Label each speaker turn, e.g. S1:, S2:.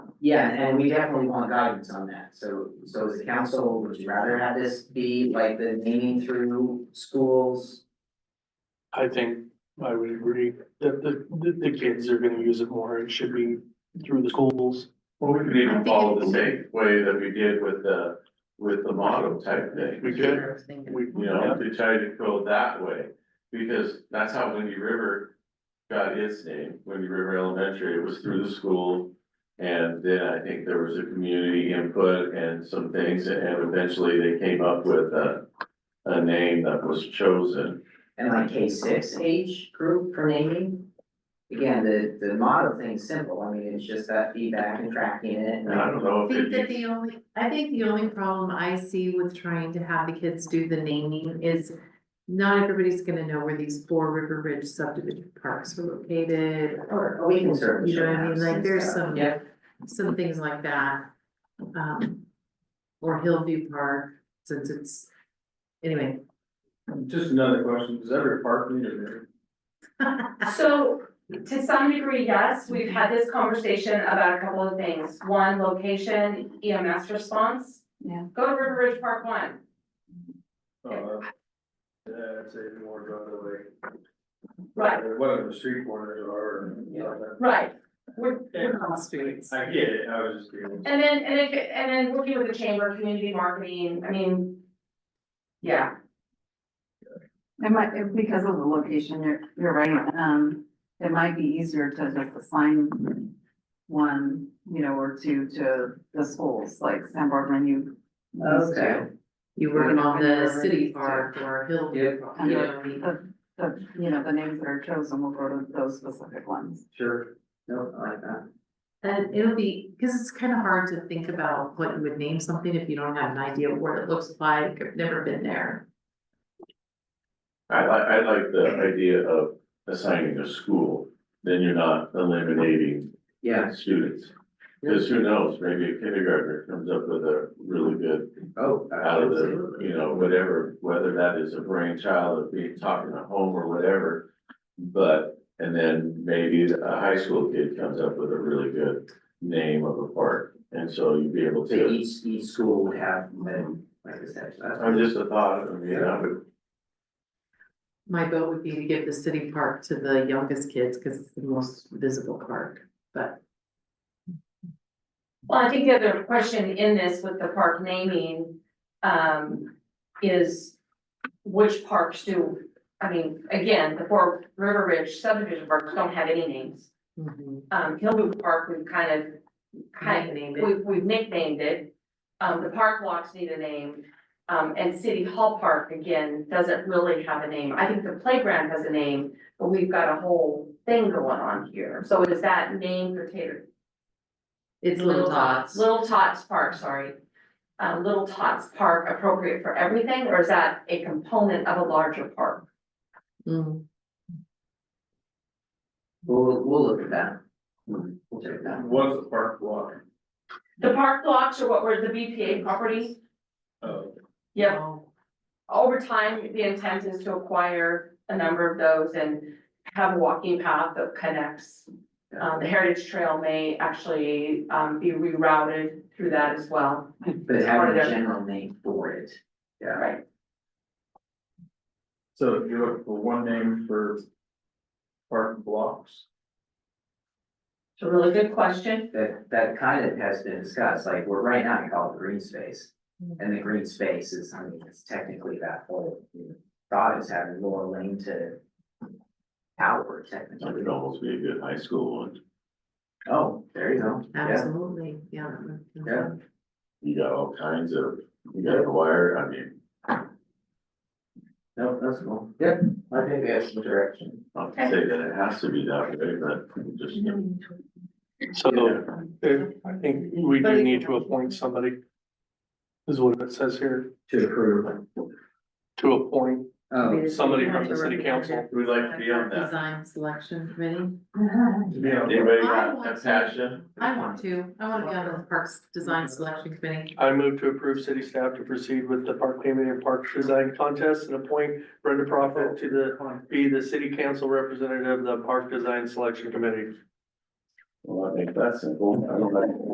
S1: Yeah, and we definitely want guidance on that, so, so as a council, would you rather have this be like the naming through schools?
S2: I think I would agree that the, the, the kids are gonna use it more. It should be through the schools.
S3: Well, we could
S4: I
S3: even
S4: think
S3: follow
S4: it-
S3: the same way that we did with the, with the motto type thing,
S2: We could,
S1: Interesting.
S2: we,
S3: you know, to try to go that way. Because that's how Windy River got its name, Windy River Elementary, it was through the school. And then I think there was a community input and some things, and eventually they came up with a, a name that was chosen.
S1: And like K six age group for naming? Again, the, the model thing's simple, I mean, it's just that feedback and tracking it,
S3: And I
S1: and
S3: don't know
S4: I
S3: if
S4: think that
S3: it,
S4: the only, I think the only problem I see with trying to have the kids do the naming is not everybody's gonna know where these four River Ridge subdivision parks are located,
S1: or oh, we can certainly
S4: You know
S1: show
S4: what I mean?
S1: maps
S4: Like,
S1: and
S4: there's
S1: stuff.
S4: some-
S1: Yeah,
S4: some things like that. Um, or Hillview Park, since it's, anyway.
S5: Just another question, does every park need a mirror?
S6: So to some degree, yes, we've had this conversation about a couple of things. One, location, EMS response.
S4: Yeah.
S6: Go to River Ridge Park One.
S5: Uh, Yeah, I'd say more the other way.
S6: Right.
S5: Or Whatever the street corners are.
S6: Right. We're,
S5: Yeah.
S4: All streets.
S5: I get it, I was just being.
S6: and then, and then, and then working with the chamber, community marketing, I mean, yeah,
S7: It might, it- because of the location, you're, you're right, um, it might be easier to just assign one, you know, or two to the schools, like San Barbara, you. used to.
S1: Okay.
S4: You work on the city park or Hillview. Park, you know what I mean?
S7: The, the, you know, the names that are chosen will go to those specific ones.
S1: sure, no, I like that,
S4: And it'll be, because it's kind of hard to think about what you would name something if you don't have an idea of what it looks like, I've never been there.
S3: I like, I like the idea of assigning a school, then you're not eliminating
S1: yeah,
S3: students. Because who knows, maybe a kindergartner comes up with a really good,
S1: oh,
S3: out of the,
S1: absolutely.
S3: you know, whatever, whether that is a brainchild of being talking at home or whatever. But, and then maybe a high school kid comes up with a really good name of a park, and so you'd be able
S1: So
S3: to,
S1: each, each school would have, um, like I said, so that's.
S3: I'm just a thought, I mean, I would,
S4: My vote would be to give the city park to the youngest kids, because it's the most visible park, but.
S6: Well, I think the other question in this with the park naming, um, is which parks do, I mean, again, the four River Ridge subdivision parks don't have any names. Um, Hillview Park, we've kind of, kind of,
S4: Name it.
S6: we've, we've nicknamed it. Um, the park blocks need a name, um, and City Hall Park, again, doesn't really have a name. I think the playground has a name, but we've got a whole thing going on here. So is that name for Tater,
S4: It's Little Tots.
S6: Little Tots Park, sorry. Uh, Little Tots Park appropriate for everything, or is that a component of a larger park?
S4: Mm.
S1: We'll, we'll look at that. Hmm, We'll check that.
S5: What's the park block?
S6: The park blocks are what were the BPA property?
S5: Oh,
S6: Yep. Over time, the intent is to acquire a number of those and have a walking path that connects. Um, the Heritage Trail may actually, um, be rerouted through that as well.
S1: But having a general name for it, yeah,
S6: Right.
S5: so you look for one name for park blocks?
S6: It's a really good question.
S1: that, that kind of has been discussed, like, we're right now, you call it green space.
S6: Mm-hmm.
S1: And the green space is, I mean, it's technically that whole, you know, thought is having more lane to power
S3: that
S1: technically.
S3: would almost be a good high school one.
S1: Oh, there you go, yeah,
S4: Absolutely, yeah.
S1: yeah,
S3: You got all kinds of, you got a wire, I mean,
S1: no, that's cool, yep, I think that's the direction.
S3: not to say that it has to be that way, but just.
S2: so if- I think we do need to appoint somebody. Is what it says here,
S1: To approve.
S2: to appoint
S1: Oh,
S2: somebody from the city council.
S3: We'd like to be on that.
S4: Design selection committee.
S5: Yeah.
S3: Anybody
S4: I
S3: got
S4: want
S3: a
S4: to.
S3: passion?
S4: I want to, I want to be on the Parks Design Selection Committee.
S2: I move to approve city staff to proceed with the park naming and park design contest and appoint Brenda Prophet to the, be the city council representative of the park design selection committee.
S3: Well, I think that's simple. I don't like.